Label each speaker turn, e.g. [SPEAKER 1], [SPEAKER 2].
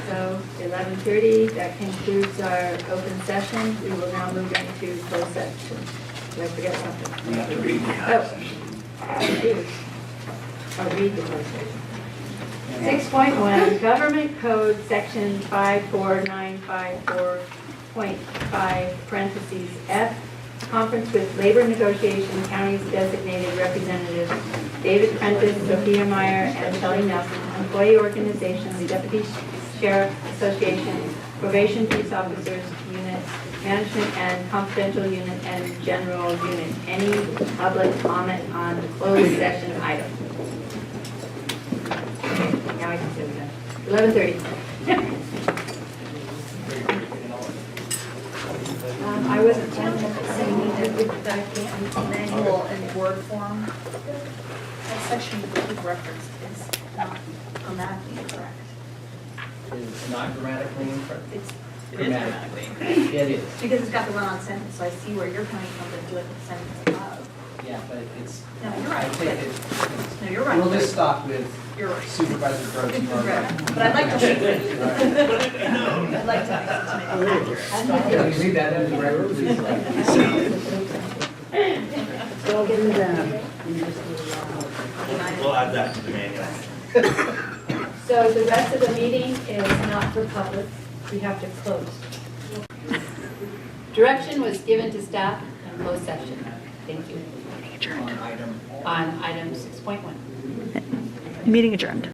[SPEAKER 1] so 11:30, that concludes our open session. We will now move into closed session. Did I forget something?
[SPEAKER 2] We have to read the
[SPEAKER 1] Oh.
[SPEAKER 2] session.
[SPEAKER 1] I do. I'll read the closed session. 6.1, Government Code, Section 54954.5, parentheses F, Conference with Labor Negotiation Counties Designated Representatives, David Prentice, Sophia Meyer, and Shelley Nelson, Employee Organization, Deputy Sheriff Association, Probation Police Officers Unit, Management and Confidential Unit, and General Unit. Any public comment on closed session item? Now I can sit down. Eleven thirty. Um, I wasn't
[SPEAKER 3] Jim
[SPEAKER 1] telling.
[SPEAKER 3] saying that we document manual and word form. That section that you referenced is not grammatically incorrect.
[SPEAKER 4] It's not grammatically incorrect.
[SPEAKER 3] It's
[SPEAKER 4] Grammatically. It is,
[SPEAKER 3] because it's got the run-on sentence, so I see where you're coming from, but do it with sentence above.
[SPEAKER 4] yeah, but it's,
[SPEAKER 3] No, you're
[SPEAKER 4] I
[SPEAKER 3] right.
[SPEAKER 4] think
[SPEAKER 3] but-
[SPEAKER 4] it,
[SPEAKER 3] No, you're
[SPEAKER 4] we'll just
[SPEAKER 3] right.
[SPEAKER 4] stop with
[SPEAKER 3] You're right.
[SPEAKER 4] Supervisor Groves.
[SPEAKER 3] It's
[SPEAKER 4] you are right.
[SPEAKER 3] correct. But I'd like to see it. I'd like to make it to make it accurate.
[SPEAKER 4] Can we leave that in the record, please?
[SPEAKER 2] We'll add that to the manual.
[SPEAKER 1] So the rest of the meeting is not for public, we have to close. Direction was given to staff in closed session. Thank you.
[SPEAKER 4] On item
[SPEAKER 1] On item six point one.
[SPEAKER 5] Meeting adjourned.